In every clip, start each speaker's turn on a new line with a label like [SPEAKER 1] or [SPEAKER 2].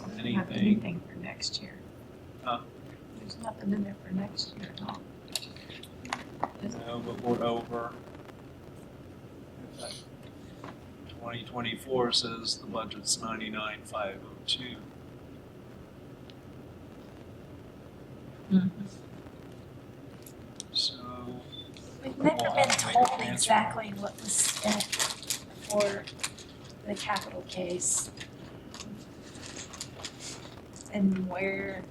[SPEAKER 1] Not
[SPEAKER 2] anything.
[SPEAKER 1] anything for next year.
[SPEAKER 2] Huh?
[SPEAKER 1] There's nothing in there for next year at all.
[SPEAKER 2] No, but we're over. Twenty twenty-four says the budget's ninety-nine, five oh two. Hmm. So,
[SPEAKER 3] We've
[SPEAKER 2] Well,
[SPEAKER 3] never been
[SPEAKER 2] I don't
[SPEAKER 3] told
[SPEAKER 2] think it's
[SPEAKER 3] exactly what was spent for the capital case. And where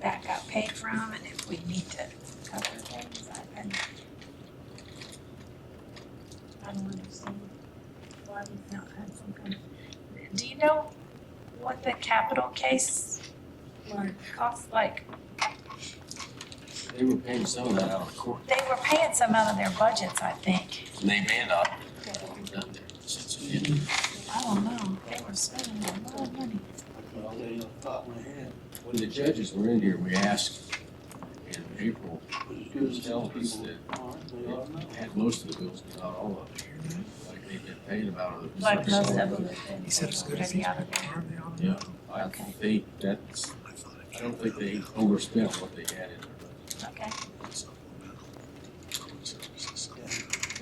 [SPEAKER 3] that got paid from and if we need to cover things, I, I I don't understand why we've not had some kind of, do you know what the capital case would cost, like,
[SPEAKER 4] They were paying some of that out of court,
[SPEAKER 3] they were paying some out of their budgets, I think.
[SPEAKER 4] and they may not have done that since we ended.
[SPEAKER 3] I don't know, they were spending a lot of money.
[SPEAKER 4] Well, I'll tell you off the top of my head, When the judges were in here, we asked in April, who's telling us that they had most of the bills, but not all of them. Like they've been paid about it.
[SPEAKER 3] Like most of them have been
[SPEAKER 5] He said as good as
[SPEAKER 3] already
[SPEAKER 5] he
[SPEAKER 3] out of
[SPEAKER 5] can.
[SPEAKER 3] there.
[SPEAKER 4] Yeah, I
[SPEAKER 3] Okay.
[SPEAKER 4] think that's, I don't think they overspent what they had in their
[SPEAKER 3] Okay,
[SPEAKER 5] they.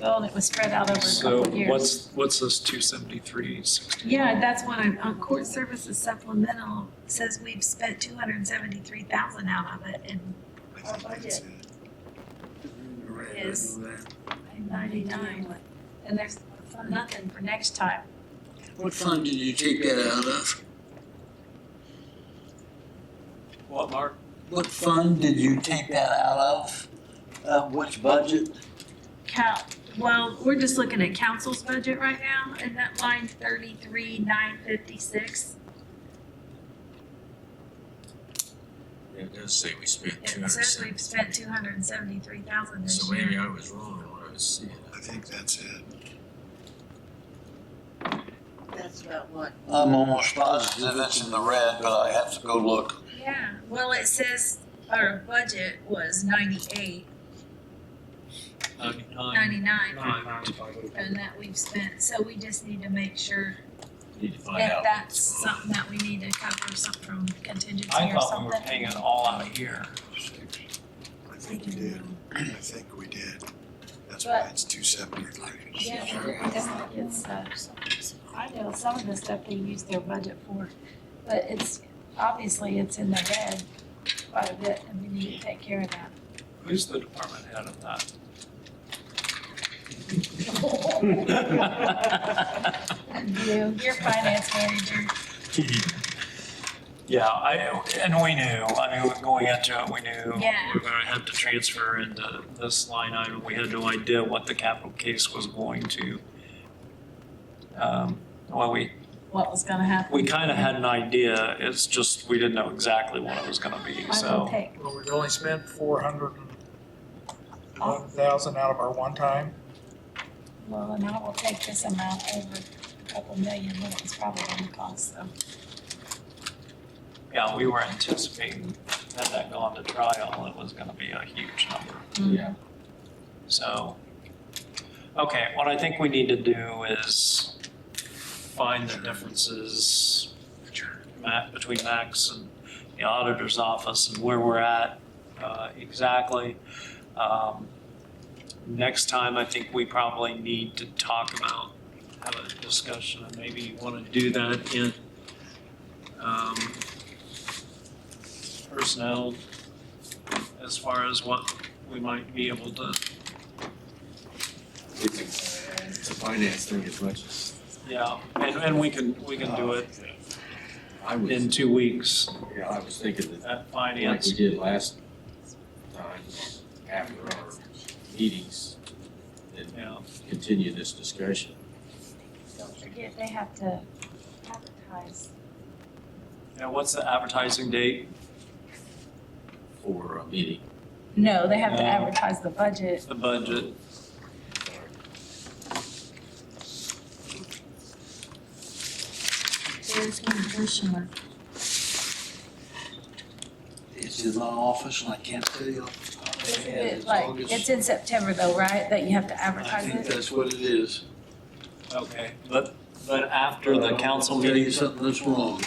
[SPEAKER 3] well, and it was spread out over a
[SPEAKER 2] so
[SPEAKER 3] couple of years.
[SPEAKER 2] what's, what's this two seventy-three, sixty?
[SPEAKER 3] Yeah, that's what I'm, on court services supplemental, says we've spent two hundred and seventy-three thousand out of it and Our budget. Is- ninety-nine. And there's nothing for next time.
[SPEAKER 6] What fund did you take that out of?
[SPEAKER 2] What, Mark?
[SPEAKER 6] What fund did you take that out of? Uh, which budget?
[SPEAKER 3] Cal, well, we're just looking at council's budget right now, and that line thirty-three, nine fifty-six,
[SPEAKER 4] budget. It does say we spent two
[SPEAKER 3] it
[SPEAKER 4] hundred
[SPEAKER 3] says we've
[SPEAKER 4] and
[SPEAKER 3] spent two hundred and seventy-three thousand
[SPEAKER 4] seventy.
[SPEAKER 3] this
[SPEAKER 4] So
[SPEAKER 3] year.
[SPEAKER 4] maybe I was wrong in what I was seeing.
[SPEAKER 5] I think that's it.
[SPEAKER 7] That's about what,
[SPEAKER 6] I'm almost positive it's in the red, but I have to go look.
[SPEAKER 3] Yeah, well, it says our budget was ninety-eight,
[SPEAKER 2] Ninety-nine.
[SPEAKER 3] ninety-nine,
[SPEAKER 2] Ninety-nine.
[SPEAKER 3] and that we've spent, so we just need to make sure
[SPEAKER 4] Need to
[SPEAKER 2] Oh,
[SPEAKER 4] find
[SPEAKER 3] that
[SPEAKER 4] out.
[SPEAKER 3] that's something that we need to cover, something from contingency
[SPEAKER 2] I
[SPEAKER 3] or
[SPEAKER 2] thought we were
[SPEAKER 3] something.
[SPEAKER 2] paying it all out here.
[SPEAKER 5] I think we did. I think we did. That's why it's two seventy-three.
[SPEAKER 3] Yeah, but it's, it's, uh, I know some of the stuff they use their budget for, but it's, obviously, it's in the red quite a bit, and we need to take care of that.
[SPEAKER 2] Who's the department head of that?
[SPEAKER 3] You, your finance manager,
[SPEAKER 2] Yeah, I, and we knew, I mean, going into it, we knew
[SPEAKER 3] Yeah.
[SPEAKER 2] we were gonna have to transfer into this line item. We had no idea what the capital case was going to. Um, Well, we,
[SPEAKER 3] what was gonna happen.
[SPEAKER 2] we kind of had an idea, it's just we didn't know exactly what it was gonna be,
[SPEAKER 3] I will
[SPEAKER 2] so.
[SPEAKER 3] take,
[SPEAKER 8] Well, we've only spent four hundred and eleven thousand out of our one-time.
[SPEAKER 3] well, and I will take this amount over a couple million, what it's probably gonna cost, so.
[SPEAKER 2] Yeah, we were anticipating, had that gone to trial, it was gonna be a huge number.
[SPEAKER 4] Yeah,
[SPEAKER 2] So, okay, what I think we need to do is find the differences ma- between Max and the auditor's office and where we're at uh, exactly. Um, Next time, I think we probably need to talk about, have a discussion, and maybe you want to do that in um, personnel as far as what we might be able to
[SPEAKER 4] it's a, it's a finance thing as much as
[SPEAKER 2] Yeah, and, and we can, we can do it
[SPEAKER 4] I
[SPEAKER 2] in
[SPEAKER 4] was,
[SPEAKER 2] two weeks
[SPEAKER 4] yeah, I was thinking that
[SPEAKER 2] at
[SPEAKER 4] like we
[SPEAKER 2] finance.
[SPEAKER 4] did last time after our meetings and
[SPEAKER 2] Yeah,
[SPEAKER 4] continue this discussion.
[SPEAKER 3] Don't forget, they have to advertise.
[SPEAKER 2] and what's the advertising date?
[SPEAKER 4] for a meeting.
[SPEAKER 3] No, they have to
[SPEAKER 2] No.
[SPEAKER 3] advertise the budget.
[SPEAKER 2] The budget?
[SPEAKER 3] There's one additional.
[SPEAKER 6] It's in my office and I can't tell you. off the top of my
[SPEAKER 3] Isn't
[SPEAKER 6] head.
[SPEAKER 3] it
[SPEAKER 6] As
[SPEAKER 3] like,
[SPEAKER 6] long as-
[SPEAKER 3] it's in September though, right, that you have to
[SPEAKER 6] I
[SPEAKER 3] advertise
[SPEAKER 6] think
[SPEAKER 3] it?
[SPEAKER 6] that's what it is.
[SPEAKER 2] Okay, but, but after the council meeting,
[SPEAKER 6] Tell you something that's wrong.